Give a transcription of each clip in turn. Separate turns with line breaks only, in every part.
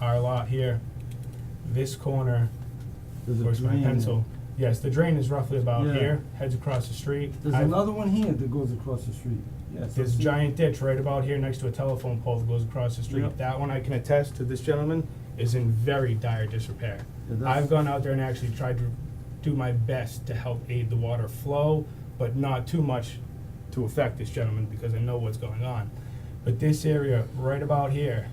our lot here, this corner,
There's
where's
a
my
drain.
pencil? Yes, the drain is roughly about
Yeah.
here, heads across the street.
There's
I've-
another one here that goes across the street. Yes.
There's a giant ditch right about here next to a telephone pole that goes across the street.
Yep.
That one I can attest to this gentleman is in very dire disrepair.
Yeah, that's-
I've gone out there and actually tried to do my best to help aid the water flow, but not too much to affect this gentleman because I know what's going on. But this area right about here,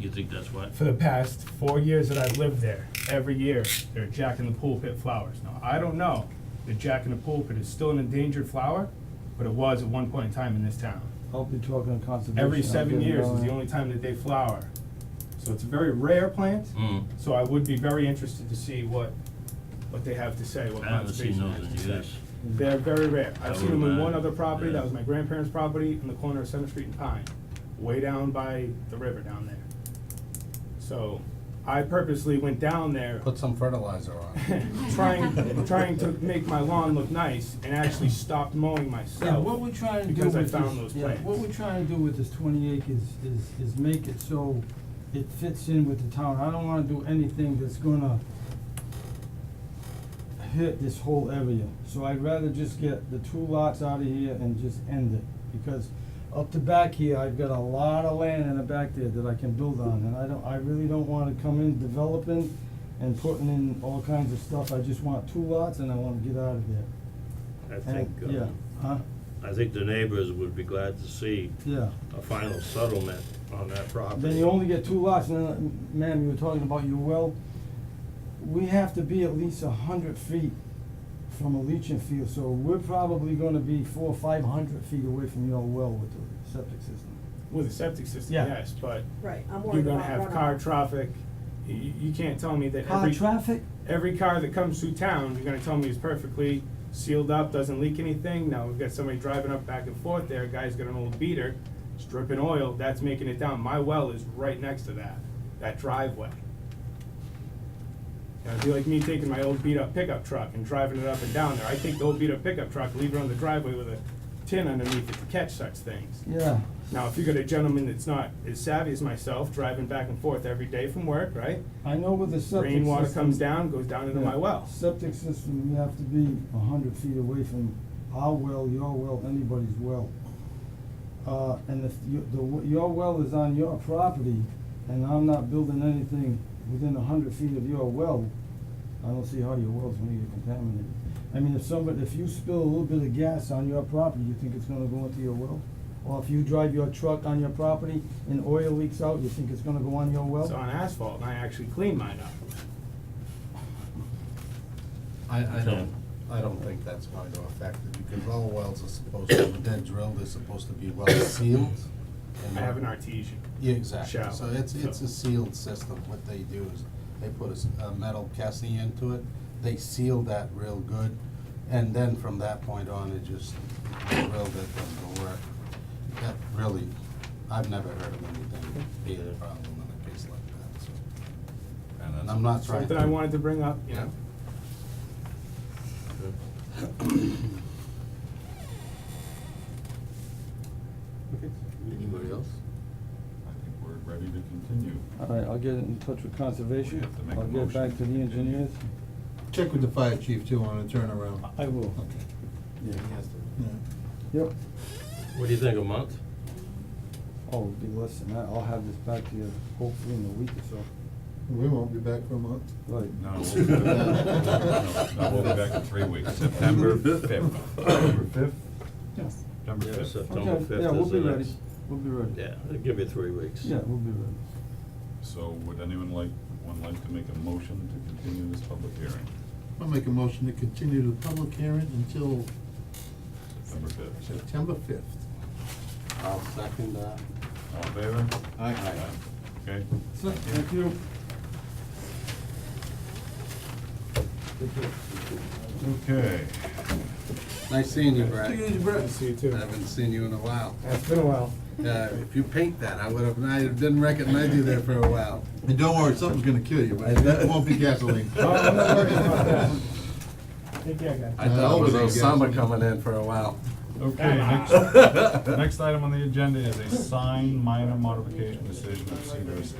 You think that's what?
for the past four years that I've lived there, every year, they're Jack in the Pulpit flowers. Now, I don't know if Jack in the Pulpit is still an endangered flower, but it was at one point in time in this town.
I'll be talking to conservation.
Every
I'll
seven
get
years
it
is the
going.
only time that they flower. So it's a very rare plant,
Mm.
so I would be very interested to see what, what they have to say, what
I haven't seen
conservation
those
has
in
to say.
years.
They're very rare. I've
That
seen them in
would've
one
been-
other property, that
yeah.
was my grandparents' property, on the corner of Center Street and Pine, way down by the river down there. So I purposely went down there
Put some fertilizer on.
trying, trying to make my lawn look nice and actually stopped mowing
Yeah,
myself.
what we're trying to do with
because I
this,
found those
yeah, what
plants.
we're trying to do with this twenty acres is, is make it so it fits in with the town. I don't wanna do anything that's gonna hit this whole area. So I'd rather just get the two lots out of here and just end it, because up the back here, I've got a lot of land in the back there that I can build on, and I don't, I really don't wanna come in developing and putting in all kinds of stuff. I just want two lots and I wanna get out of there.
I think,
And, yeah,
uh,
huh,
I think the neighbors would be glad to see
yeah.
a final settlement on that property.
Then you only get two lots, and then, ma'am, you were talking about your well. We have to be at least a hundred feet from a leaching field, so we're probably gonna be four, five hundred feet away from your well with the septic system.
With a septic system,
Yeah.
yes, but
Right, I'm
you're
worried
gonna
about
have
runoff.
car traffic. You, you can't tell me that
Car
every,
traffic,
every car that comes through town, you're gonna tell me is perfectly sealed up, doesn't leak anything. Now, we've got somebody driving up back and forth there, a guy's got an old beater, it's dripping oil, that's making it down. My well is right next to that, that driveway. Now, it'd be like me taking my old beat-up pickup truck and driving it up and down there. I take the old beat-up pickup truck, leave it on the driveway with a tin underneath it to catch such things.
yeah,
Now, if you got a gentleman that's not as savvy as myself, driving back and forth every day from work, right?
I know with the septic system.
Rainwater comes down, goes down into
yeah,
my well.
Septic system, you have to be a hundred feet away from our well, your well, anybody's well. Uh, and if you, the, w- your well is on your property, and I'm not building anything within a hundred feet of your well, I don't see how your well's gonna get contaminated. I mean, if somebody, if you spill a little bit of gas on your property, you think it's gonna go into your well? Or if you drive your truck on your property and oil leaks out, you think it's gonna go on your well?
It's on asphalt, and I actually clean mine up.
I, I don't, I don't think that's going to affect it, because all wells are supposed to, when they're drilled, they're supposed to be well sealed. and
I have an
not-
artesian.
Yeah, exactly,
shower,
so it's, it's
so-
a sealed system, what they do is, they put a s- a metal casing into it, they seal that real good, and then from that point on, it just, drilled it, does the work. That really, I've never heard of anything being a problem in a case like that, so. And I'm not trying to.
Something I wanted to bring up, you know?
Anybody else?
I think we're ready to continue.
All right, I'll get in touch with
We
conservation.
have to make a
I'll get
motion.
back to the engineers.
Check with the fire chief too on a turnaround.
I will. Yeah. Yep.
What do you think, a month?
Oh, it'll be less than that. I'll have this back to you hopefully in a week or
We won't be back for a month.
so. Right.
No, we'll be back, no, no, we'll be back in three weeks, September fifth. September fifth?
Yes.
September
Yeah,
fifth.
September
Okay,
fifth
yeah, we'll
is
be
the
ready.
next.
We'll be ready.
Yeah, it'll give you three weeks.
Yeah, we'll be ready.
So would anyone like, one like to make a motion to continue this public hearing,
I'll make a motion to continue the public hearing until
September fifth?
September fifth.
I'll second that.
All in favor?
Aye.
Okay,
So, thank you. Take care.
okay.
Nice seeing you, Brad.
Take it easy, Brett.
See you
I
too.
haven't seen you in a while.
It's been a while.
Uh, if you paint that, I would have, I didn't recognize you there for a while.
And don't worry, something's gonna kill you, but that won't be gasoline.
Oh, I'm not worried about that. Take care, guys.
I thought it was Osama coming in for a while.
Okay, next, next item on the agenda is a sign minor modification decision of Cedar Estates